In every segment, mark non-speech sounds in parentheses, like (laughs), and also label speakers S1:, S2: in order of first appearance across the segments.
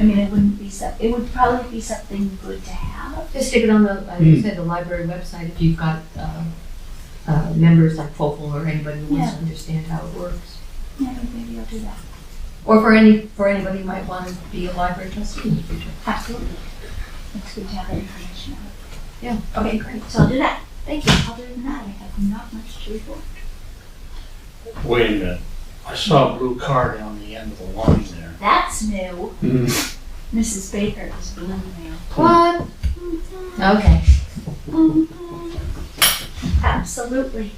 S1: I mean, it wouldn't be so, it would probably be something good to have.
S2: Just stick it on the, like you said, the library website, if you've got, uh, uh, members like Focal or anybody who wants to understand how it works.
S1: Yeah, maybe I'll do that.
S2: Or for any, for anybody who might want to be a library trustee in the future.
S1: Absolutely. It's good to have that information. out.
S2: Yeah.
S1: Okay, great. So I'll do that. Thank you. Other than that, I have not much to report.
S3: Wait a minute. I saw a blue car down the end of the line there.
S1: That's new.
S4: Mm.
S1: Mrs. Baker is blue now.
S2: What? Okay.
S1: Mm-hmm. Absolutely.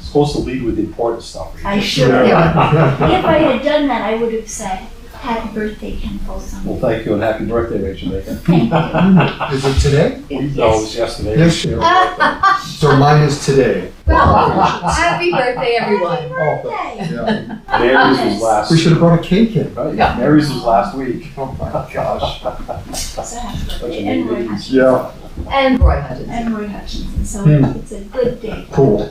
S5: Supposed to lead with the important stuff.
S1: I should have.
S5: Well,
S1: If I had done that, I would have said, happy birthday, Ken Folsom.
S5: thank you and happy birthday, Rachel Bacon.
S1: Thank you.
S4: Is it today?
S5: No, it was yesterday.
S4: Yes, yeah. So mine is today.
S2: Well, happy birthday, everyone.
S4: Oh,
S1: Yay.
S4: yeah.
S5: Mary's was last.
S4: We should have brought a cake in.
S5: Right,
S2: Yeah.
S5: Mary's was last week. (laughs)
S4: Oh my gosh.
S1: So happy
S5: Such
S1: birthday.
S5: a
S1: And
S5: neat
S1: Roy
S5: meeting.
S1: Hutchinson.
S4: Yeah,
S2: And Roy Hutchinson.
S1: And Roy Hutchinson. So
S4: Hmm.
S1: it's a good day.
S4: cool.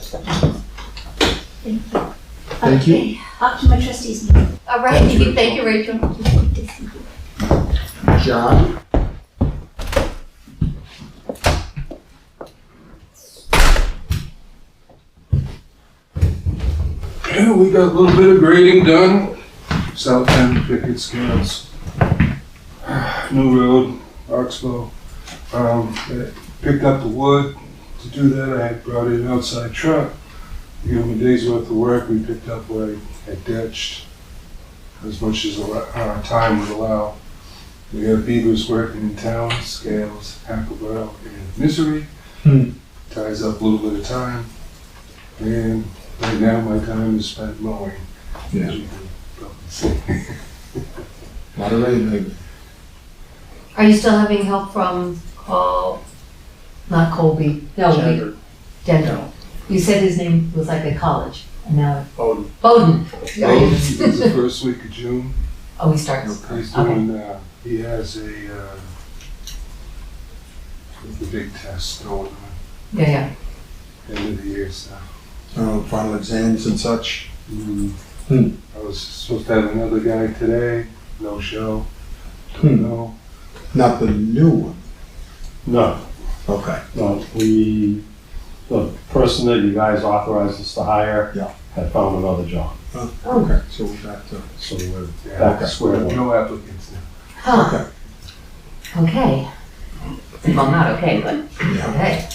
S1: Thank you.
S4: Thank you.
S1: Okay, Up to my trustees meeting.
S2: All right, thank you, thank you, Rachel.
S4: John?
S6: Yeah, we got a little bit of grading done. South End Picket Scales. (sighs) New Road, Oxbow. Um, I picked up the wood. To do that, I had brought in an outside truck. You know, a day's worth of work, we picked up what I had ditched as much as al- uh, time would allow. We have beavers working in town, Scales, Hackleboro, and Misery.
S4: Hmm.
S6: Ties up a little bit of time. And Right now, my time is spent mowing. as
S4: Yeah.
S6: you can probably see.
S4: Not maybe.
S2: Are you still having help from Col, not Colby? No, we-
S3: Senator
S2: Denver. You said his name was like a college, and now
S3: Bowden.
S2: Bowden.
S6: Well, It was the first week of June.
S2: Oh, he starts.
S6: He's doing, uh, he has a, uh, the big test going on,
S2: Yeah, yeah.
S6: end of the year stuff.
S4: Uh, final exams and such. Hmm.
S6: I was supposed to have another guy today, no show,
S4: Hmm.
S6: don't know.
S4: Not the new one.
S5: No,
S4: Okay.
S5: no, we, the person that you guys authorized us to hire
S4: Yeah.
S5: had found another job.
S4: Okay, so we're back to.
S5: So we're
S6: Yeah,
S5: back to square one.
S6: No applicants now.
S2: Huh, okay. Well, not okay, but
S4: Yeah.
S2: okay.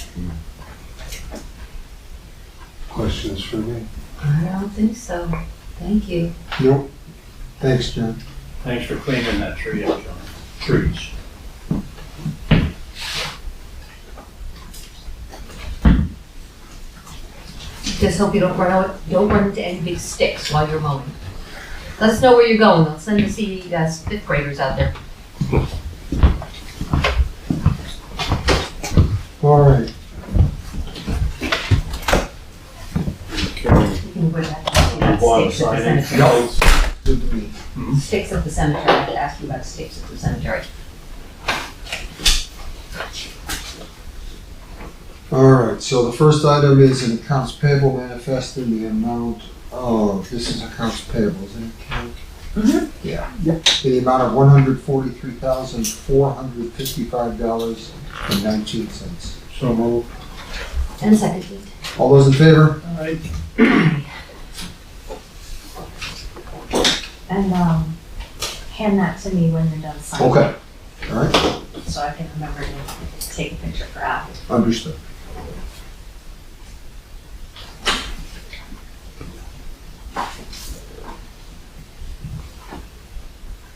S6: Questions for me?
S2: I don't think so. Thank you.
S4: Nope. Thanks, John.
S3: Thanks for cleaning that tree up, John. Trees.
S2: Just hope you don't run out, don't run into any big sticks while you're mowing. Let us know where you're going. I'll send the CE guys, fifth graders out there.
S4: All right.
S2: You can wear that.
S3: Lawn
S2: Sticks at the
S3: signing.
S2: cemetery.
S4: Good to meet
S2: Sticks at the cemetery. I have to ask you about sticks at the cemetery.
S4: you. All right, so the first item is an accounts payable manifest in the amount of, this is accounts payable, isn't it, Kate?
S2: Mhm.
S4: Yeah. In the amount of one hundred forty-three thousand, four hundred fifty-five dollars and nineteen cents.
S3: So moved.
S2: And seconded.
S4: All those in favor?
S3: All right.
S7: And um, hand that to me when you're done signing.
S4: Okay. All right,
S7: So I can remember to take a picture for Al.
S4: understood.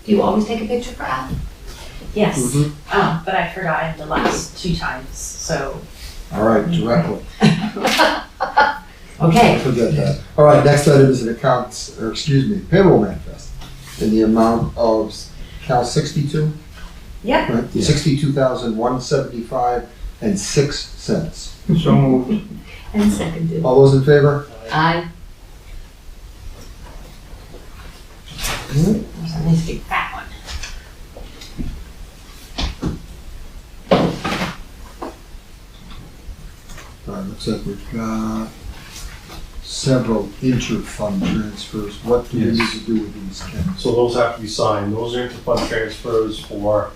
S2: Do you always take a picture for Al?
S7: Yes. Um, but I forgot it the last two times, so.
S4: All right, directly.
S2: Okay.
S4: Forget that. All right, next item is an accounts, or excuse me, payroll manifest in the amount of, Cal sixty-two?
S7: Yep.
S4: Right, sixty-two thousand, one seventy-five and six cents.
S3: So moved.
S2: And seconded.
S4: All those in favor?
S2: Aye. There's Hmm? a nice big fat one.
S4: All right, looks like we've got several inter-fund transfers. What do we
S5: Yes.
S4: need to do with these, Ken?
S5: So those have to be signed, those are interfund transfers for